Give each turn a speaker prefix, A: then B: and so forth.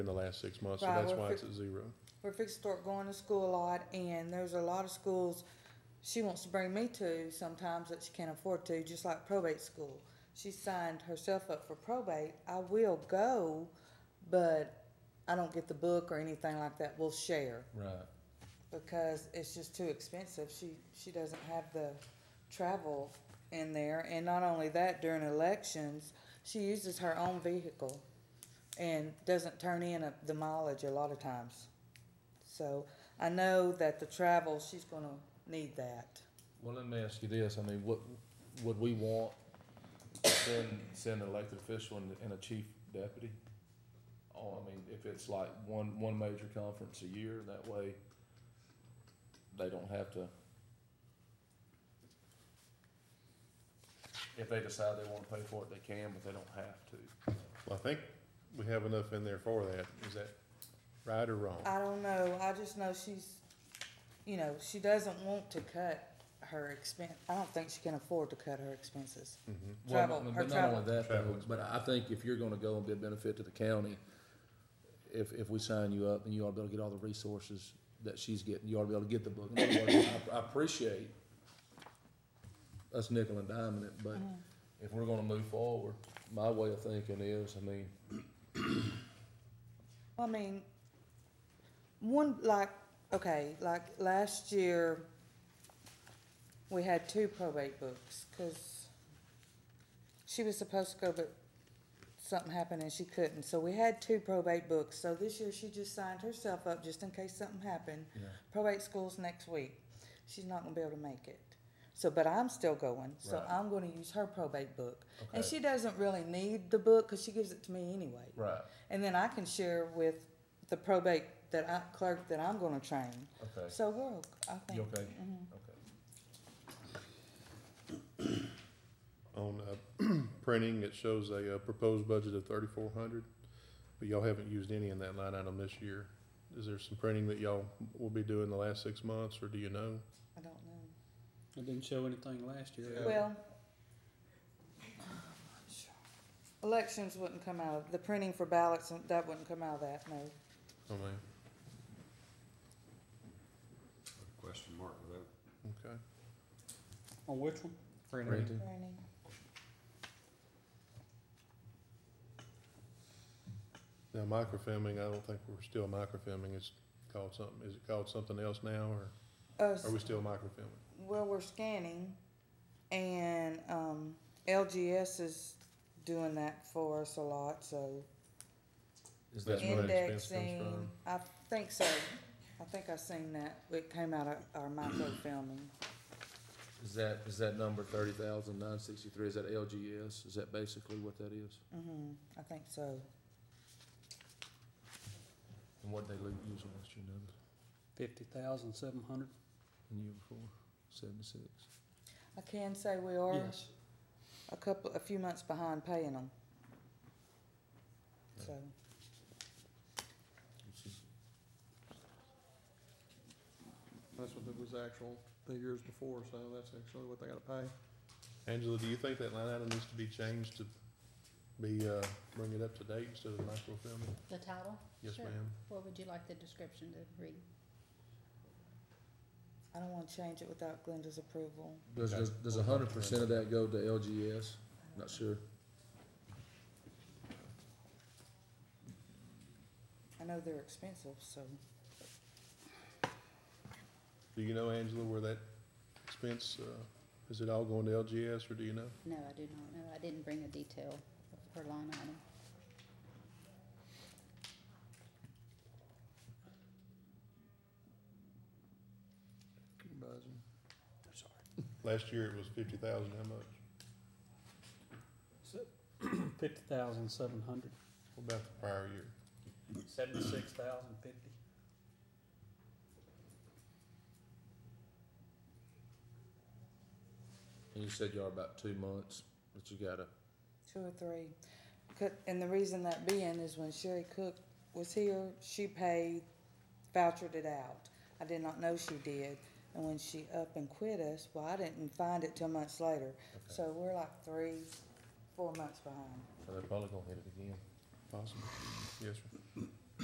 A: in the last six months, so
B: Right,
A: that's
B: we're
A: why
B: fi-
A: it's at zero.
B: We're fixing to start going to school a lot, and there's a lot of schools she wants to bring me to sometimes that she can't afford to, just like probate school. She signed herself up for probate. I will go, but I don't get the book or anything like that. We'll share
A: Right.
B: because it's just too expensive. She she doesn't have the travel in there, and not only that, during elections, she uses her own vehicle and doesn't turn in a, the mileage a lot of times. So I know that the travel she's going to need that.
A: Well, let me ask you this, I mean, what, would we want, send, send an elected official and, and a chief deputy? Oh, I mean, if it's like one, one major conference a year, that way they don't have to. If they decide they wanna pay for it, they can, but they don't have to.
C: Well, I think we have enough in there for that. Is that right or wrong?
B: I don't know. I just know she's, you know, she doesn't want to cut her expense. I don't think she can afford to cut her expenses.
C: Mhm.
A: Well,
B: Travel,
A: but-
B: her
A: But not
B: travel.
A: only that,
C: Travel
A: though, but I think if you're gonna go and be a benefit to the county, if, if we sign you up, then you ought to be able to get all the resources that she's getting, you ought to be able to get the book. In other words, I, I appreciate us nickel and diming it, but
B: Mm-hmm.
A: if we're gonna move forward, my way of thinking is, I mean,
B: I mean, one, like, okay, like last year, we had two probate books, cause she was supposed to go, but something happened and she couldn't, so we had two probate books, so this year she just signed herself up just in case something happened.
A: Yeah.
B: Probate school's next week, she's not gonna be able to make it, so, but I'm still going, so
A: Right.
B: I'm gonna use her probate book. And
A: Okay.
B: she doesn't really need the book, cause she gives it to me anyway.
A: right,
B: And then I can share with the probate that I, clerk that I'm gonna train.
A: okay,
B: So we're, ok- I think.
A: you okay?
B: mhm.
A: Okay.
C: On uh, printing, it shows a uh, proposed budget of thirty-four hundred, but y'all haven't used any in that line item this year. Is there some printing that y'all will be doing the last six months, or do you know?
B: I don't know.
D: It didn't show anything last year.
A: Yeah.
B: Well. Elections wouldn't come out, of the printing for ballots, and that wouldn't come out of that, no.
C: Oh, man,
E: Question mark with that.
C: okay.
D: On which one?
A: Printing.
B: Printing.
C: Now, microfilming, I don't think we're still microfilming. It's called something, is it called something else now, or
B: Uh,
C: are we still microfilming?
B: well, we're scanning and, um, LGS is doing that for us a lot, so.
A: Is
C: That's
A: that,
C: where the expense comes
B: Indexing,
C: from.
B: I think so. I think I seen that. It came out of our microfilming.
A: is that, is that number thirty thousand nine sixty-three, is that LGS? Is that basically what that is?
B: Mm-hmm, I think so.
A: And what they lo- use last year, numbers?
D: Fifty thousand seven hundred?
A: And the year before, seventy-six.
B: I can say we are
D: Yes.
B: a couple, a few months behind paying them. So,
F: That's what it was actual the years before, so that's actually what they gotta pay.
C: Angela, do you think that line item needs to be changed to be, uh, bring it up to date instead of microfilming?
G: The title?
C: Yes,
G: Sure.
C: ma'am.
G: What would you like the description to read?
B: I don't wanna change it without Glenda's approval.
A: Does, does- does a hundred percent of that go to LGS? Not sure.
B: I know they're expensive, so.
C: Do you know, Angela, where that expense, uh, is it all going to LGS, or do you know?
G: No, I do not know. I didn't bring a detail of her line item.
F: Buzzing.
C: Last year it was fifty thousand, how much?
D: Fifty thousand seven hundred.
C: What about the prior year?
D: Seventy-six thousand fifty.
A: And you said you are about two months, but you gotta,
B: Two or three. Could- And the reason that being is when Sherry Cook was here, she paid, vouchered it out. I did not know she did. And when she up and quit us, well, I didn't find it till months later. So we're like three, four months behind.
A: so they're probably gonna hit it again.
C: Possible. Yes, sir.